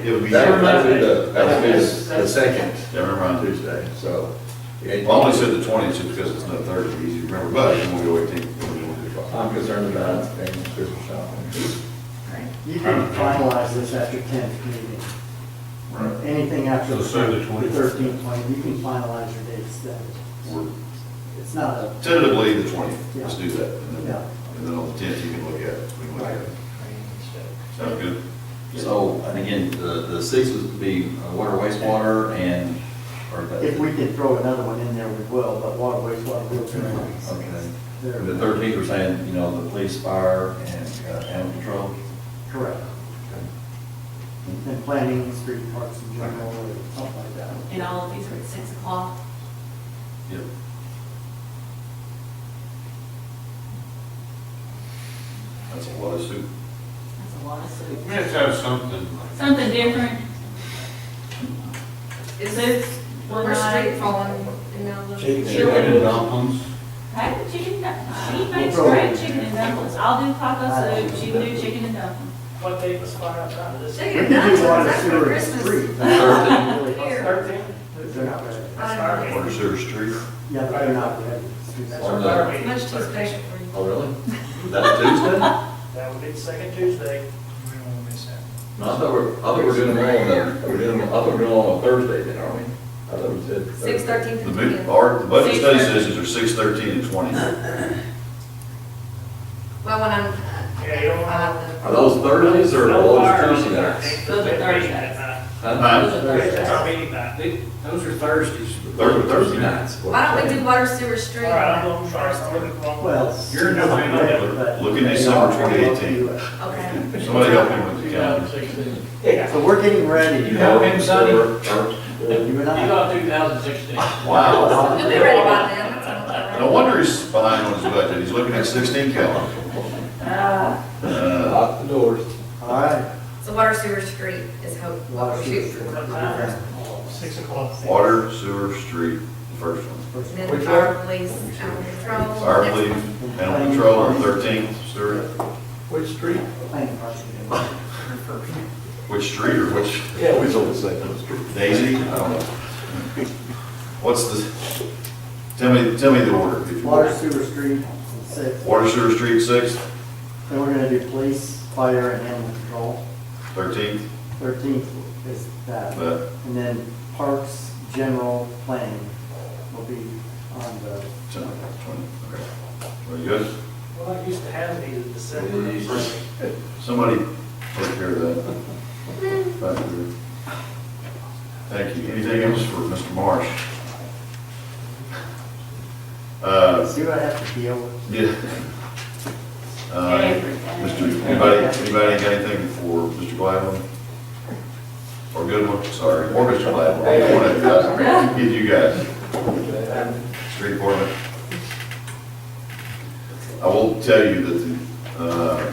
It would be. That Well, would be the, that would be That's- the that's- second Never mind. Tuesday, so. I only said the twentieth just because it's not Thursday, easy to remember, but I'm gonna go eighteen. I'm concerned about things, Christmas shopping. You can finalize this after tenth meeting. Right. Anything after So the say the 20th. thirteenth, twenty, you can finalize your dates then. We're It's not a, Tentatively the twentieth, let's do that. And Yeah. then- and then on the tenth, you can look at it. We can look at it. Sound good? So, and again, the, the sixth would be uh, water wastewater and, or. the- if we could throw another one in there, we will, but water, wastewater, we'll do Okay. it. And They're- The thirteenth, we're saying, you know, the police, fire, and uh, animal control. Correct. And planning, street parks in general, or something like that. And all of these are at six o'clock. Yep. That's a lot of soup. That's a lot of soup. Let's have something. Something different. Is it one We're straight night? falling in Malibu. dumplings. How did chicken and dumplings? She makes We'll great go. chicken and dumplings. I'll do taco soup, she can do chicken and dumplings. What date was fire up out of this? They We did could not, do water, that's for sewer, and Christmas. street. Here. Thirteen? They're not ready. Um, Water Sewer Street. Yeah, but they're not ready. That's On our the- fire it's meeting. Much too special for you. Oh, really? That's Tuesday? No, That would be the second Tuesday. I thought we're, I thought we're doing them all on the, we're doing them, I thought we're doing them on a Thursday then, aren't we? I thought we said. Six thirteen The to move, 10. our, the budget study sessions are six, thirteen, and twenty. Well, when I'm, Yeah, you don't I'll have Are those Thursdays or No are fire on those the Tuesday nights? 13th. Those are Thursdays. Huh? That's our meeting night. Those are Thursdays. Thursday, Thursday Thursday night. nights. the- why don't we do water sewer street? All right, I'm going to try to look at one. Well. You're in November. November, but- Look in December 2018. Okay. Somebody help me with the calendar. Yeah. So we're getting ready. You help him, Sonny? You and I. two thousand sixteen. Wow. You'll be ready by then, that's all right. No wonder he's behind on his budget, he's looking at sixteen calendar. Uh, Lock the doors. All right. So water sewer street is hope, Water, sewer, shoot. street. And Six o'clock. Water, sewer, street, the first one. then Which fire police, animal control. Fire Next relief, one. animal control on thirteenth, Stuart. Which street? Planning parts. Which street or which Yeah, we told the second street. daisy? I don't know. What's the, tell me, tell me the order. if you will. Water, sewer, street, and six. Water, sewer, street, sixth, Then we're gonna do police, fire, and animal control. thirteenth, Thirteenth is that. That. And then parks, general, planning will be on the. tenth, twentieth, okay. Very good. Well, I used to have these in December. Somebody take care of that. Back there. Thank you. Anything else for Mr. Marsh? Uh, See what I have to deal with? yeah. Uh, Mr., anybody, anybody got anything for Mr. Gladwin? Or Goodwin, sorry, or Mr. Gladwin, either one of you guys. Either you guys. Street Department. I will tell you that the, uh,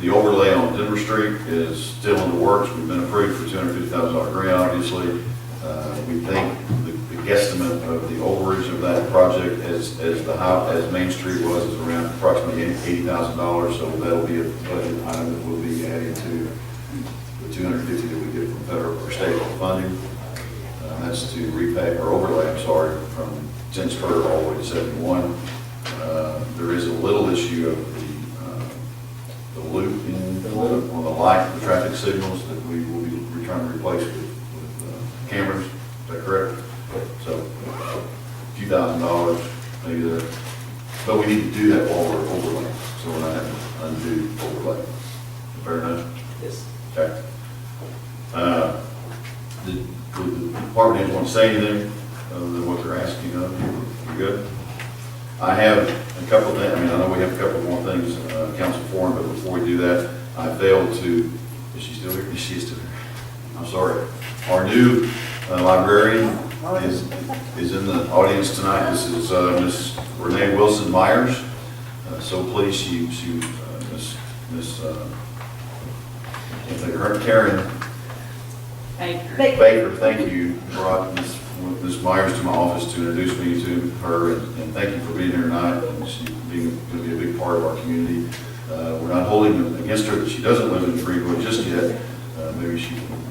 the overlay on Denver Street is still in the works. We've been approved for two hundred fifty thousand dollar grant, obviously. Uh, We think the the guesstimate of the overage of that project as, as the high, as Main Street was, is around approximately eighty thousand dollars. So that'll be a budget item that will be added to the two hundred fifty that we get from federal or state funding. Uh, That's to repay, or overlay, I'm sorry, from ten spur all the way to seventy-one. Uh, There is a little issue of the, uh, the loop in, on the light, the traffic signals that we will be we're trying to replace with, with uh, cameras, is that correct? So, a few thousand dollars, maybe there, but we need to do that while we're overlaying, so we're not having to undo overlay. Fair enough? Yes. Okay. Uh, Did did the department heads want to say anything other than what they're asking of you? You good? I have a couple of, things- I mean, I know we have a couple more things, uh, council forum, but before we do that, I failed to, is she still here? She is still here. I'm sorry. Our new uh, librarian is, is in the audience tonight. This is uh, Ms. Renee Wilson Myers. Uh, So pleased she, she, uh, Ms. Ms. uh, if the current Karen Baker. Baker, thank you, brought Ms. Ms. Myers to my office to introduce me to her, and and thank you for being here tonight, and she being, going to be a big part of our community. Uh, We're not holding it against her that she doesn't live in Greenwood just yet, Uh, maybe she,